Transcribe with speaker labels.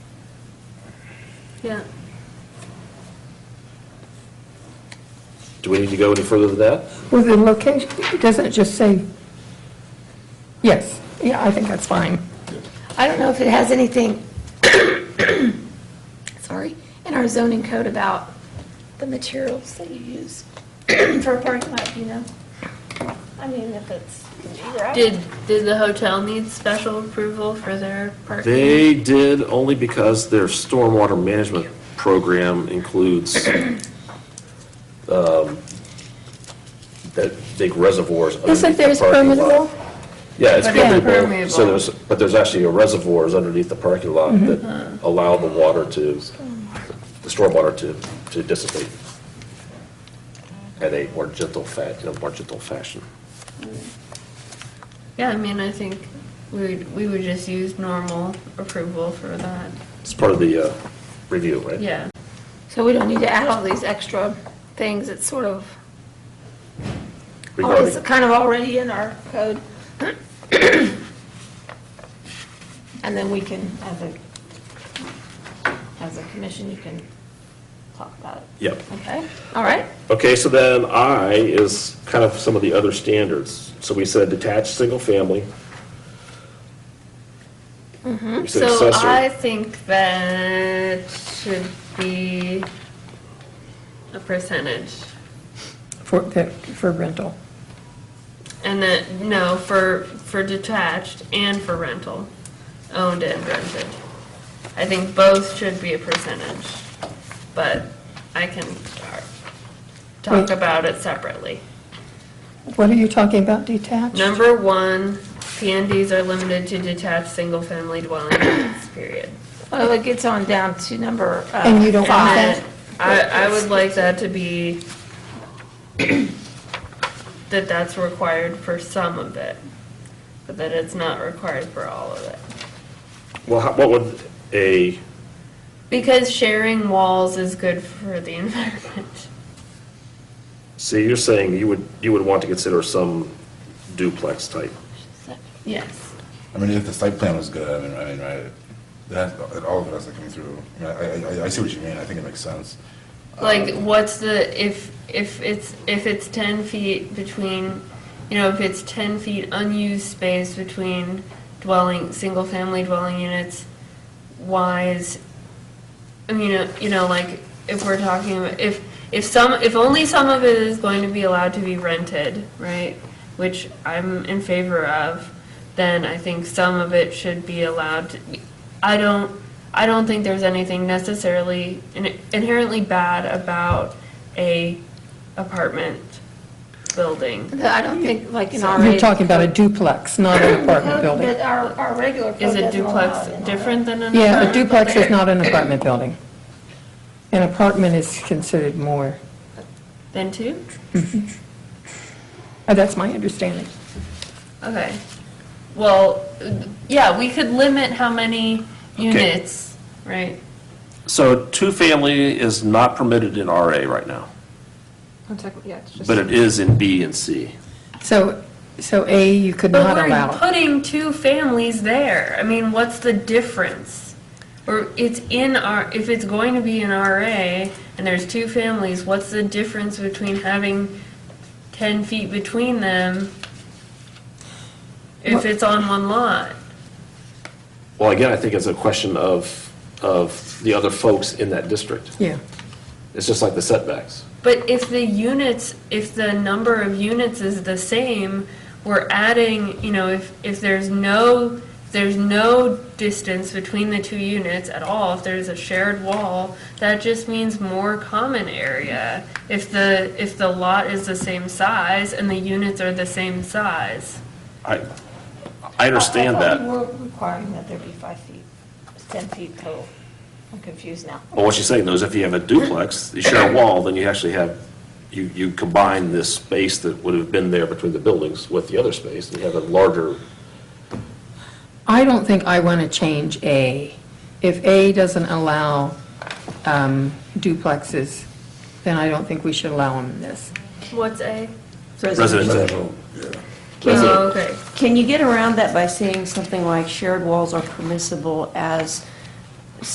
Speaker 1: Yeah.
Speaker 2: Do we need to go any further than that?
Speaker 3: Well, the location, doesn't it just say, yes, yeah, I think that's fine.
Speaker 1: I don't know if it has anything, sorry, in our zoning code about the materials that you use for a parking lot, you know? I mean, if it's.
Speaker 4: Did, did the hotel need special approval for their parking?
Speaker 2: They did only because their stormwater management program includes um, that big reservoirs. underneath
Speaker 3: Isn't
Speaker 2: the
Speaker 3: theirs
Speaker 2: parking lot.
Speaker 3: permeable?
Speaker 2: Yeah, it's
Speaker 4: But it's
Speaker 2: permeable.
Speaker 4: permeable.
Speaker 2: So there's, but there's actually a reservoirs underneath the parking lot that allow the water to, the stormwater to, to dissipate at a more gentle fa, in a more gentle fashion.
Speaker 4: Yeah, I mean, I think we would, we would just use normal approval for that,
Speaker 2: It's part of the uh, review, right?
Speaker 4: yeah.
Speaker 1: So we don't need to add all these extra things, it's sort of, oh,
Speaker 2: Regarding,
Speaker 1: it's kind of already in our code. And then we can, as a, as a commission, you can talk about it.
Speaker 2: yep.
Speaker 1: Okay, all right.
Speaker 2: Okay, so then I is kind of some of the other standards. So we said detached, single family. We said
Speaker 4: Mm-hmm. So I
Speaker 2: accessory.
Speaker 4: think that should be a percentage.
Speaker 3: For, that- for rental.
Speaker 4: And that, no, for, for detached and for rental, owned and rented. I think both should be a percentage, but I can uh, talk
Speaker 3: Wait.
Speaker 4: about it separately.
Speaker 3: What are you talking about detached?
Speaker 4: Number one, PNDs are limited to detached, single-family dwelling units, period.
Speaker 1: Well, it gets on down to number uh,
Speaker 3: And you don't want
Speaker 4: And
Speaker 3: that?
Speaker 1: five.
Speaker 4: I, I would like that to be, that that's required for some of it, but that it's not required for all of it.
Speaker 2: Well, how- what would a,
Speaker 4: Because sharing walls is good for the environment.
Speaker 2: so you're saying you would, you would want to consider some duplex type?
Speaker 4: Yes.
Speaker 5: I mean, if the site plan was good, I mean, I mean, right, that, that all of it has to come through. I mean, I, I, I see what you mean, I think it makes sense.
Speaker 4: Like, what's the, if, if it's, if it's ten feet between, you know, if it's ten feet unused space between dwelling, single-family dwelling units, why is, I mean, uh, you know, like, if we're talking, about if, if some, if only some of it is going to be allowed to be rented, right, which I'm in favor of, then I think some of it should be allowed to, be- I don't, I don't think there's anything necessarily in- inherently bad about a apartment building.
Speaker 1: I don't think, like in our.
Speaker 3: You're talking about a duplex, not an apartment building.
Speaker 1: But our, our regular code
Speaker 4: Is a
Speaker 1: doesn't allow
Speaker 4: duplex
Speaker 1: it in our-
Speaker 4: different than an
Speaker 3: Yeah, a
Speaker 4: apartment
Speaker 3: duplex
Speaker 4: building?
Speaker 3: is not an apartment building. An apartment is considered more,
Speaker 4: Then two?
Speaker 3: Uh, that's my understanding.
Speaker 4: Okay. Well, yeah, we could limit how many units, right?
Speaker 2: So two-family is not permitted in RA right now, but it is in B and C.
Speaker 3: So, so A, you could
Speaker 4: But
Speaker 3: not
Speaker 4: we're
Speaker 3: allow.
Speaker 4: putting two families there. I mean, what's the difference? Or it's in our, if it's going to be an RA and there's two families, what's the difference between having ten feet between them if it's on one lot?
Speaker 2: Well, again, I think it's a question of, of the other folks in that district.
Speaker 3: Yeah,
Speaker 2: It's just like the setbacks.
Speaker 4: But if the units, if the number of units is the same, we're adding, you know, if, if there's no, if there's no distance between the two units at all, if there's a shared wall, that just means more common area. If the, if the lot is the same size and the units are the same size.
Speaker 2: I, I understand
Speaker 1: I thought we
Speaker 2: that.
Speaker 1: We're requiring that there be five feet, it's 10 feet total. I'm confused now.
Speaker 2: Well, what she's saying though is if you have a duplex, you share a wall, then you actually have, you, you combine this space that would have been there between the buildings with the other space, and you have a larger,
Speaker 3: I don't think I want to change A. If A doesn't allow um, duplexes, then I don't think we should allow them in this.
Speaker 4: What's A?
Speaker 2: Residential.
Speaker 4: Oh, okay.
Speaker 6: Can you get around that by saying something like shared walls are permissible as